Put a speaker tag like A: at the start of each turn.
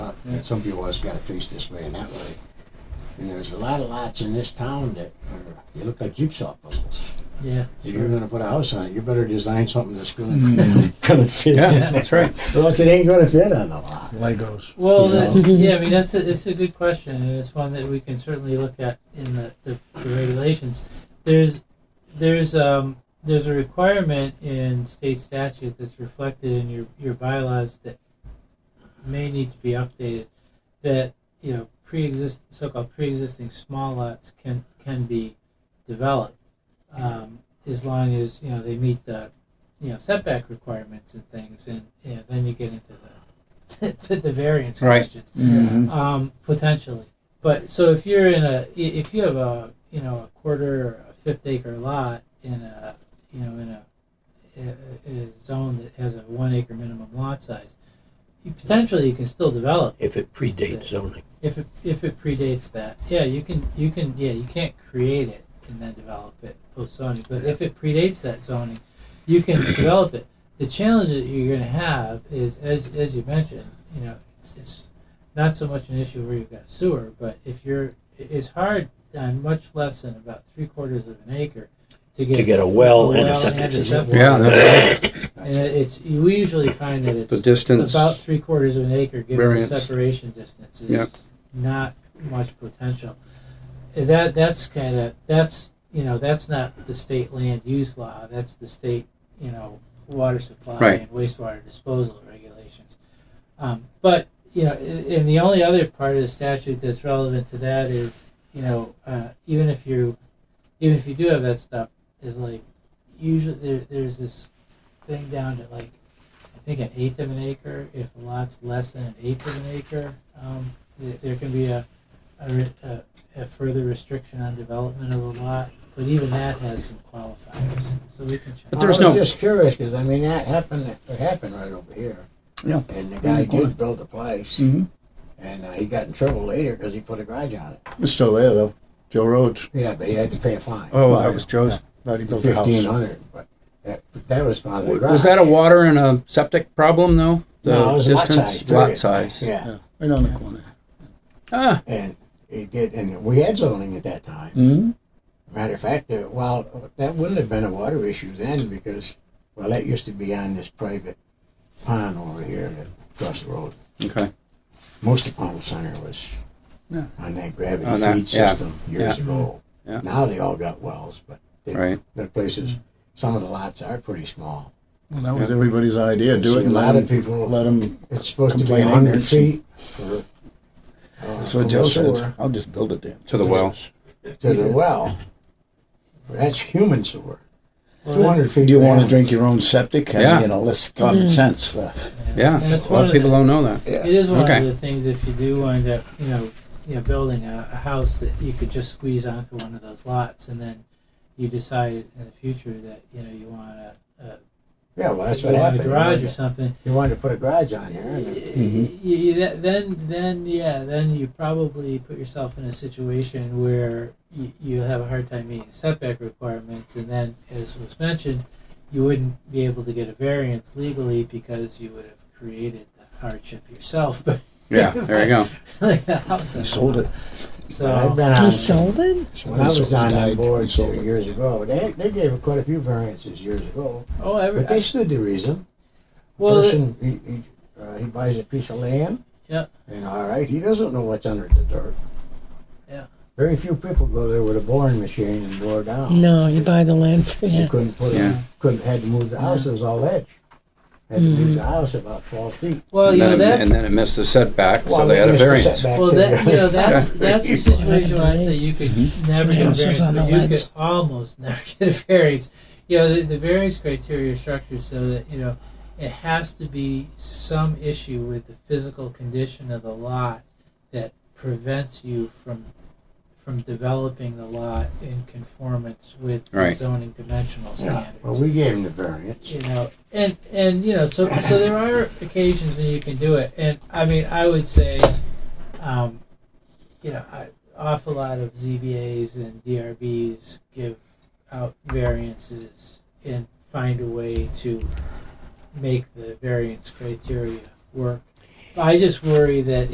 A: And some people always got to face this way and that way. And there's a lot of lots in this town that are, they look like jigsaw puzzles.
B: Yeah.
A: If you're going to put a house on it, you better design something that's going to
C: Mm.
A: going to fit.
C: Yeah,
A: in
C: that's right.
A: Or else it ain't going to fit on the lot.
C: Legos.
B: Well,
A: Yeah.
B: that- yeah, I mean, that's a, it's a good question, and it's one that we can certainly look at in the, the, the regulations. There's there's um, there's a requirement in state statute that's reflected in your, your bylaws that may need to be updated that you know pre-exist so-called pre-existing small lots can can be developed um, as long as you know they meet the you know setback requirements and things and you know, then you get into the the, the variance
C: Right.
B: questions
C: Mm-hmm.
B: um, potentially. But so if you're in a i- if you have a you know a quarter or a fifth acre lot in a you know in a, a, a zone that has a one acre minimum lot size, you potentially you can still develop
D: if it predates zoning.
B: if it if it predates that. Yeah, you can you can yeah you can't create it and then develop it post zoning. But if it predates that zoning, you can develop it. The challenge that you're going to have is as as you mentioned, you know, it's, it's not so much an issue where you've got sewer, but if you're it's hard on much less than about three quarters of an acre to get
D: To get a well and a
B: well
D: septic system.
B: septic
C: Yeah,
B: system.
A: That's
B: and it's we usually find that it's
C: The distance.
B: about three quarters of an acre, given
C: Variance.
B: the separation distance, is
C: Yep.
B: not much potential. And That that's kind of that's you know that's not the state land use law. That's the state you know water supply
C: Right.
B: and wastewater disposal regulations. Um, but you know, a- and the only other part of the statute that's relevant to that is you know uh, even if you even if you do have that stuff, is like usually there, there's this thing down to like I think an eighth of an acre. If a lot's less than an eighth of an acre, um, th- there can be a, a, re- a, a further restriction on development of a lot. But even that has some qualifiers, so we can check.
C: But there's
A: I was
C: no-
A: just curious because I mean that happened. It happened right over here.
C: Yeah.
A: And the guy
E: Mm.
C: Yeah.
A: did build a place,
C: Mm-hmm.
A: and uh, he got in trouble later because he put a garage on it.
E: It's still there though. Joe Rhodes.
A: Yeah, but he had to pay a fine.
C: Oh, that was Joe's.
E: Thought he built a
A: Fifteen
E: house.
A: hundred, but that, that was part of the
C: W-
A: garage.
C: Was that a water and a septic problem though? The
A: no, it was
C: distance,
A: lot size.
C: lot
A: period.
C: size.
A: Yeah,
E: Yeah, right on the corner.
C: Ah,
A: and it did, and we had zoning at that time.
C: Hmm?
E: Mm-hmm.
A: Matter of fact, uh, well, that wouldn't have been a water issue then because, well, that used to be on this private pond over here that across the road.
C: okay.
A: Most of Pownell Center was
C: Yeah.
A: on that gravity
C: On that,
A: feed
C: yeah,
A: system years
C: yeah.
A: ago.
C: Yeah.
A: Now they all got wells, but they,
C: Right.
A: the places, some of the lots are pretty small.
E: Well, that was everybody's idea. Do
A: See,
E: it.
A: a
E: and
A: lot
E: let
A: of
E: them-
A: people-
E: let them.
A: It's supposed to be
E: Complaining
A: 100
E: and-
A: feet for. Uh,
E: So
A: from
E: Joe
A: the
E: says,
A: sewer
E: "I'll just build it there."
C: To the wells.
A: to the well. That's human sewer.
B: Well,
A: Two hundred
B: that's-
A: feet.
E: Do you
A: for
E: want to
A: animals.
E: drink your own septic? I mean,
C: Yeah.
E: You know, this
A: Mm.
E: common sense. uh,
C: Yeah.
B: and that's
C: A lot
B: one
C: of
B: of
C: people
B: the-
C: don't know that.
B: It is one
C: Okay.
B: of the things if you do wind up, you know, you know, building a, a house that you could just squeeze onto one of those lots, and then you decide in the future that you know you want a, a,
A: Yeah, well, that's
B: you
A: what
B: want
A: happened.
B: a garage or something.
A: You wanted to put a garage on here. and it-
B: y- y- that- then, then, yeah, then you probably put yourself in a situation where you, you have a hard time meeting setback requirements, and then, as was mentioned, you wouldn't be able to get a variance legally because you would have created the hardship yourself. But
C: Yeah. There you go.
B: like the house,
E: He sold it.
A: I've
B: So
A: been on.
F: He sold it?
A: When I was on that board
E: He sold
A: several
E: it.
A: years ago, they, they gave quite a few variances years ago,
B: oh, every,
A: but they stood to reason.
B: well,
A: Person, he, he, uh, he buys a piece of land.
B: Yeah.
A: And all right, he doesn't know what's under the dirt.
B: Yeah.
A: Very few people go there with a boring machine and bore down.
F: No, you buy the land for
A: You
F: yeah.
A: couldn't put
C: Yeah.
A: a, couldn't had to move the house. It was all edge. Had to
B: Mm-hmm.
A: move the house about twelve feet.
B: well,
C: and,
B: you know
C: then it,
B: that's
C: and then it missed the setback, so
A: Well,
C: they had a
A: missed the
C: variance.
A: setbacks
B: well
A: in
B: that you
A: there.
B: know that's that's a situation where I say you could never get a
F: Yeah,
B: variance,
F: this is on
B: but
F: the
B: you
F: ledge.
B: could almost never get a variance. You know, the, the variance criteria are structured so that you know it has to be some issue with the physical condition of the lot that prevents you from from developing the lot in conformance with the
C: Right.
B: zoning dimensional
A: Yeah.
B: standards.
A: Well, we gave him the variance.
B: you know and and you know so so there are occasions when you can do it and i mean i would say um you know I, awful lot of zbas and drbs give out variances and find a way to make the variance criteria work i just worry that